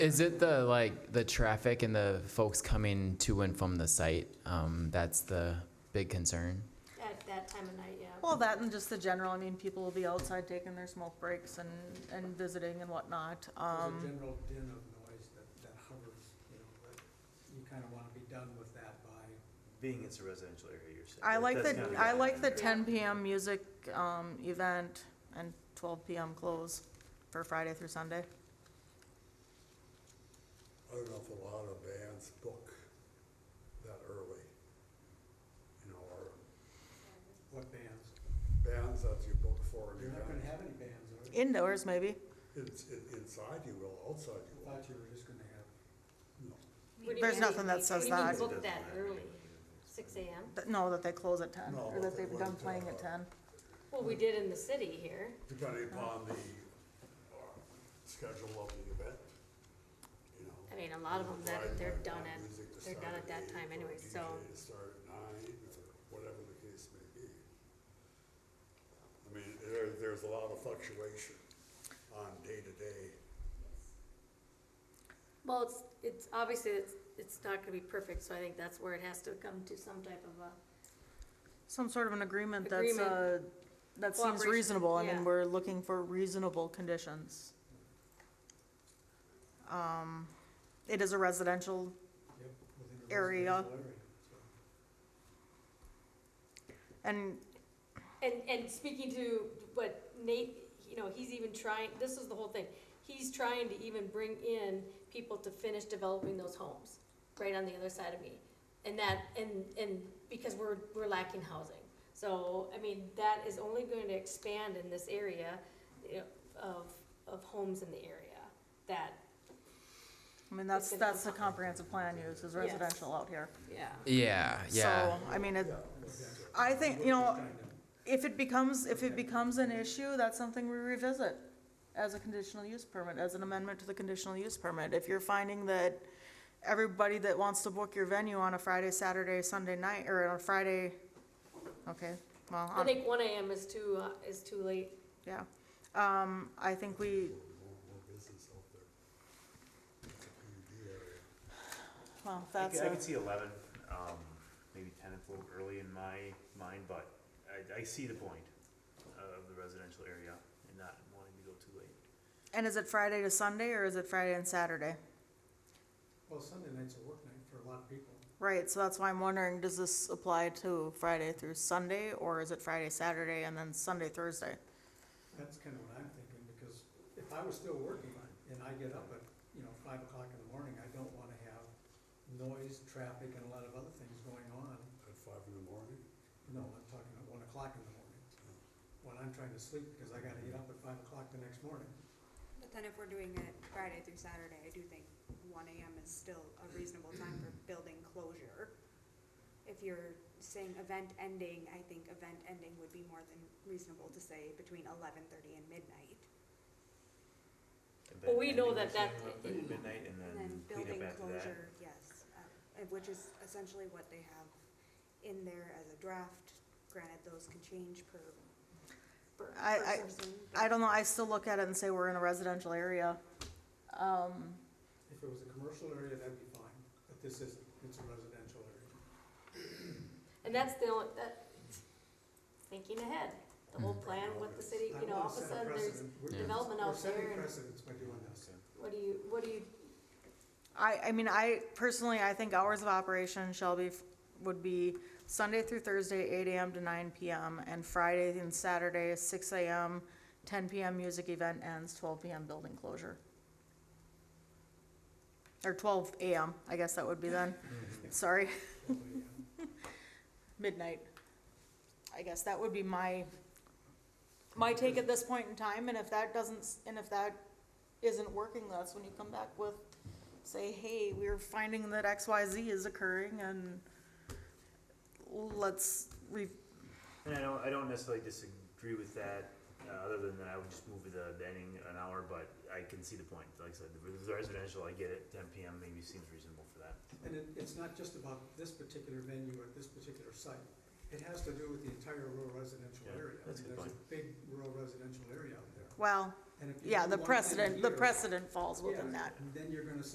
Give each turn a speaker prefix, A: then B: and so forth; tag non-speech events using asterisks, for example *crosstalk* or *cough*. A: Is it the like the traffic and the folks coming to and from the site? Um, that's the big concern.
B: At that time of night, yeah.
C: Well, that and just the general, I mean, people will be outside taking their smoke breaks and, and visiting and whatnot, um.
D: There's a general din of noise that, that hovers, you know, but you kind of want to be done with that by,
E: Being it's a residential area, you're saying.
C: I like the,
E: That's gotta be
C: I
E: the
C: like the
E: end.
C: ten PM music, um, event and twelve PM close for Friday through Sunday.
F: I don't know if a lot of bands book that early. You know, or
D: what bands?
F: bands that you book for an
D: You're not gonna
F: event.
D: have any bands, are you?
C: Indoors, maybe.
F: It's, i inside you will, outside
D: I
F: you will.
D: thought you were just gonna have,
F: No.
B: What do you
C: There's
B: mean-
C: nothing that
B: what
C: says
B: do you mean
C: that.
B: book that early, six AM?
C: Th- No, that they close at ten,
F: No,
C: or that
F: they
C: they've done
F: wouldn't,
C: playing at
F: uh,
C: ten.
B: Well, we did in the city here.
F: Depending upon the, uh, schedule of the event, you know.
B: I mean, a lot of them that, they're
F: Friday night
B: done
F: band
B: at,
F: music to
B: they're
F: start
B: done at that
F: eight,
B: time
F: or
B: anyway, so.
F: DJ to start at nine, or whatever the case may be. I mean, there, there's a lot of fluctuation on day-to-day.
B: Well, it's, it's, obviously, it's, it's not gonna be perfect, so I think that's where it has to come to some type of a,
C: Some sort of an agreement that's,
B: Agreement.
C: uh, that seems
B: Cooperation,
C: reasonable, I
B: yeah.
C: mean, we're looking for reasonable conditions. Um, it is a residential,
D: yep, within a
C: Area.
D: residential area. so.
C: and
B: and, and speaking to what Nate, you know, he's even trying, this is the whole thing. He's trying to even bring in people to finish developing those homes, right on the other side of me. And that, and, and because we're, we're lacking housing. So, I mean, that is only going to expand in this area you know, of, of homes in the area that,
C: I mean, that's,
B: It's gonna
C: that's a comprehensive plan use, is residential out here.
B: yeah.
A: Yeah, yeah.
C: So, I mean, it, I think, you know, if it becomes, if it becomes an issue, that's something we revisit as a conditional use permit, as an amendment to the conditional use permit. If you're finding that everybody that wants to book your venue on a Friday, Saturday, Sunday night, or on a Friday, okay, well,
B: I
C: on-
B: think one AM is too, uh, is too late.
C: yeah. Um, I think we,
F: more, more business out there. It's a PUD area.
C: well,
E: I
C: that's
E: could- I
C: a,
E: could see eleven, um, maybe ten if a little early in my mind, but I, I see the point of the residential area and not wanting to go too late.
C: and is it Friday to Sunday, or is it Friday and Saturday?
D: Well, Sunday night's a work night for a lot of people.
C: Right, so that's why I'm wondering, does this apply to Friday through Sunday, or is it Friday, Saturday, and then Sunday, Thursday?
D: That's kind of what I'm thinking, because if I was still working and I get up at, you know, five o'clock in the morning, I don't want to have noise, traffic, and a lot of other things going on.
F: At five in the morning,
D: No, I'm talking at one o'clock in the morning, when I'm trying to sleep, because I gotta get up at five o'clock the next morning.
G: But then if we're doing it Friday through Saturday, I do think one AM is still a reasonable time
E: *clears throat*
G: for building closure. If you're saying event ending, I think event ending would be more than reasonable to say between eleven thirty and midnight.
E: And
B: Well,
E: then
B: we know
E: ending
B: that
E: at
B: that-
E: Midnight and
G: And then
E: then clean
G: building
E: up after that.
G: closure, yes, uh, uh, which is essentially what they have in there as a draft. Granted, those can change per, per
C: I- I-
G: per person.
C: I don't know, I still look at it and say we're in a residential area. Um,
D: If it was a commercial area, that'd be fine, but this isn't, it's a residential area.
B: And that's the only, that, thinking ahead, the whole plan with the city, you know, all of a sudden there's, development out there and-
D: We're setting precedents by doing this.
B: what do you, what do you,
C: I, I mean, I personally, I think hours of operation shall be, would be Sunday through Thursday, eight AM to nine PM, and Friday and Saturday, six AM, ten PM music event ends, twelve PM building closure. Or twelve AM, I guess that would be then, sorry, midnight. I guess that would be my, my take at this point in time, and if that doesn't, s- and if that isn't working, that's when you come back with say, hey, we're finding that X, Y, Z is occurring and let's re,
E: And I don't, I don't necessarily disagree with that, uh, other than that I would just move the the ending an hour, but I can see the point. Like I said, the residential, I get it, ten PM maybe seems reasonable for that.
D: And it, it's not just about this particular venue or this particular site. It has to do with the entire rural residential
E: Yeah,
D: area. I
E: that's a
D: mean,
E: good
D: There's a big rural residential area out there.
C: well,
D: And if you
C: Yeah, the
D: do one thing a
C: precedent, the
D: year,
C: precedent falls within
D: yeah,
C: that.
D: Then you're gonna say